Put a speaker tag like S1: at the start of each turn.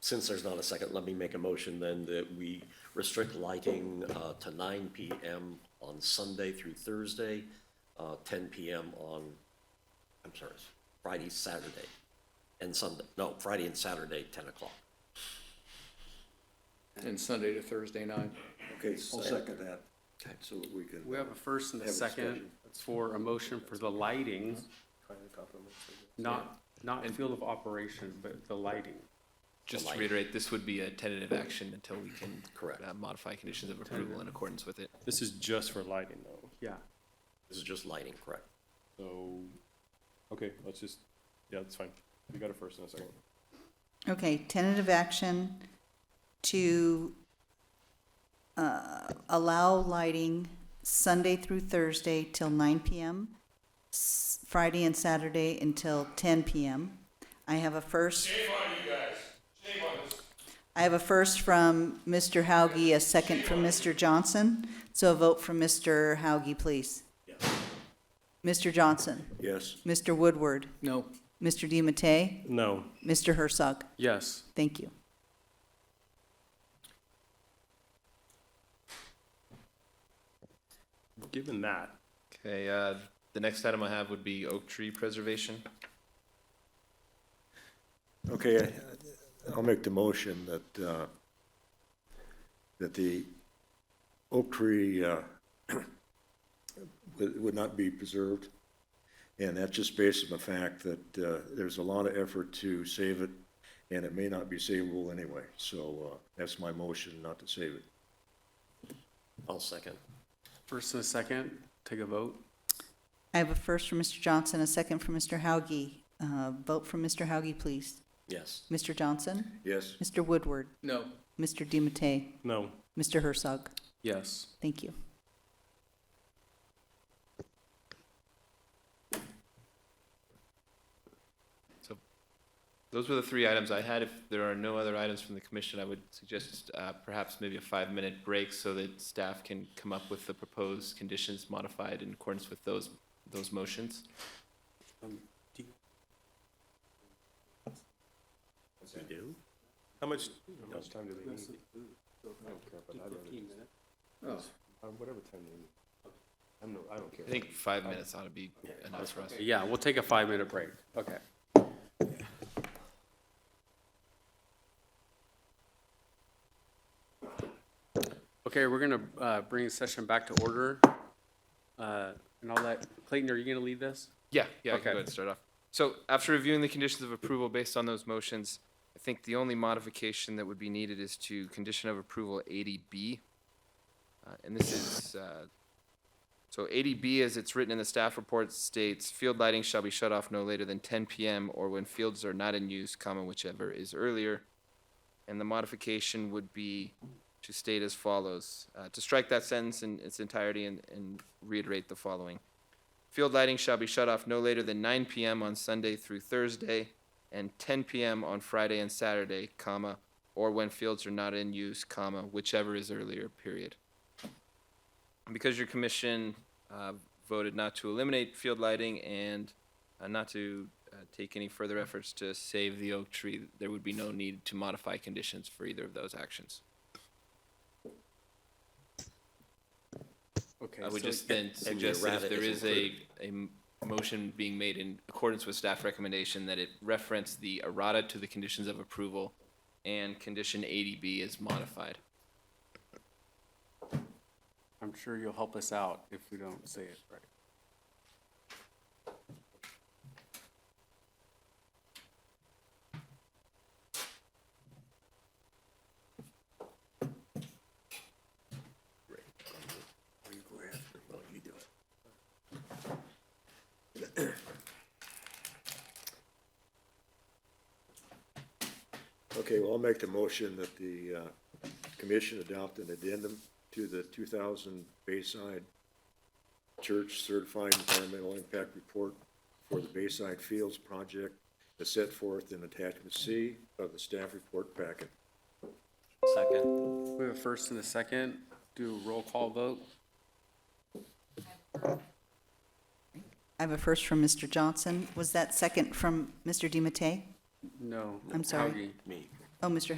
S1: since there's not a second, let me make a motion then that we restrict lighting uh, to nine PM on Sunday through Thursday, uh, ten PM on, I'm sorry, Friday, Saturday, and Sunday, no, Friday and Saturday, ten o'clock.
S2: and Sunday to Thursday night.
S3: Okay, I'll second that,
S1: Okay.
S3: so that we can.
S4: We have a first and a
S3: Have a
S4: second
S3: discussion.
S4: for a motion for the lighting, not, not field of operation, but the lighting.
S5: Just to
S1: Light.
S5: reiterate, this would be a tentative action until we can.
S1: Correct.
S5: uh, Modify conditions of approval in accordance with it.
S6: This is just for lighting though,
S4: Yeah,
S1: This is just lighting, correct?
S6: so, okay, let's just, yeah, that's fine. We got a first and a second.
S7: Okay, tentative action to uh, allow lighting Sunday through Thursday till 9 PM, s- Friday and Saturday until 10 PM. I have a first. Shame on you guys. Shame on us. I have a first from Mr. Hauge, a second from Mr. Johnson. So a vote from Mr. Hauge, please. Mr. Johnson,
S3: Yes,
S7: Mr. Woodward,
S2: No,
S7: Mr. DiMattei,
S6: No.
S7: Mr. Herzog.
S4: yes,
S7: Thank you.
S6: Given that,
S5: Okay, uh, the next item I have would be oak tree preservation.
S3: okay, I- I'll make the motion that, uh, that the oak tree, uh, would, would not be preserved. And that's just based on the fact that, uh, there's a lot of effort to save it, and it may not be savable anyway. So, uh, that's my motion, not to save it.
S1: I'll second.
S4: first and a second, take a vote,
S7: I have a first from Mr. Johnson, a second from Mr. Hauge. Uh, Vote for Mr. Hauge, please.
S1: Yes,
S7: Mr. Johnson,
S3: Yes,
S7: Mr. Woodward,
S2: no,
S7: Mr. DiMattei,
S6: no.
S7: Mr. Herzog.
S4: yes.
S7: Thank you.
S5: Those were the three items I had. If there are no other items from the commission, I would suggest uh, perhaps maybe a five-minute break so that staff can come up with the proposed conditions modified in accordance with those, those motions.
S1: we do.
S6: How much, how much time do they need? Uh, Whatever time they need. I'm no, I don't care.
S5: I think five minutes ought to be enough for us.
S4: Yeah, we'll take a five-minute break, okay. Okay, we're gonna, uh, bring the session back to order. Uh, and I'll let, Clayton, are you gonna lead this?
S5: Yeah, yeah, I can
S4: Okay.
S5: go ahead and start off. So after reviewing the conditions of approval based on those motions, I think the only modification that would be needed is to condition of approval 80B. Uh, And this is, uh, so 80B, as it's written in the staff report, states, "Field lighting shall be shut off no later than 10 PM or when fields are not in use, comma, whichever is earlier." And the modification would be to state as follows, uh, to strike that sentence in its entirety and- and reiterate the following. Field lighting shall be shut off no later than 9 p.m. on Sunday through Thursday and 10 p.m. on Friday and Saturday, comma, or when fields are not in use, comma, whichever is earlier, period. Because your commission uh, voted not to eliminate field lighting and uh, not to uh, take any further efforts to save the oak tree, there would be no need to modify conditions for either of those actions.
S4: Okay,
S5: I would
S4: so-
S5: just then
S1: and
S5: suggest that if
S1: errata
S5: there
S1: is
S5: is a, a m- motion being made in accordance with staff recommendation, that it reference the errata to the conditions of approval and condition 80B is modified.
S4: I'm sure you'll help us out if we don't say it right.
S3: Okay, well, I'll make the motion that the uh, commission adopt an addendum to the 2000 Bayside Church Certified Environmental Impact Report for the Bayside Fields Project as set forth in Attachment C of the staff report packet.
S1: Second.
S4: We have a first and a second, do a roll call vote,
S7: I have a first from Mr. Johnson. Was that second from Mr. DiMattei?
S4: no.
S7: I'm sorry.
S4: Howgie.
S1: Me.
S7: Oh, Mr.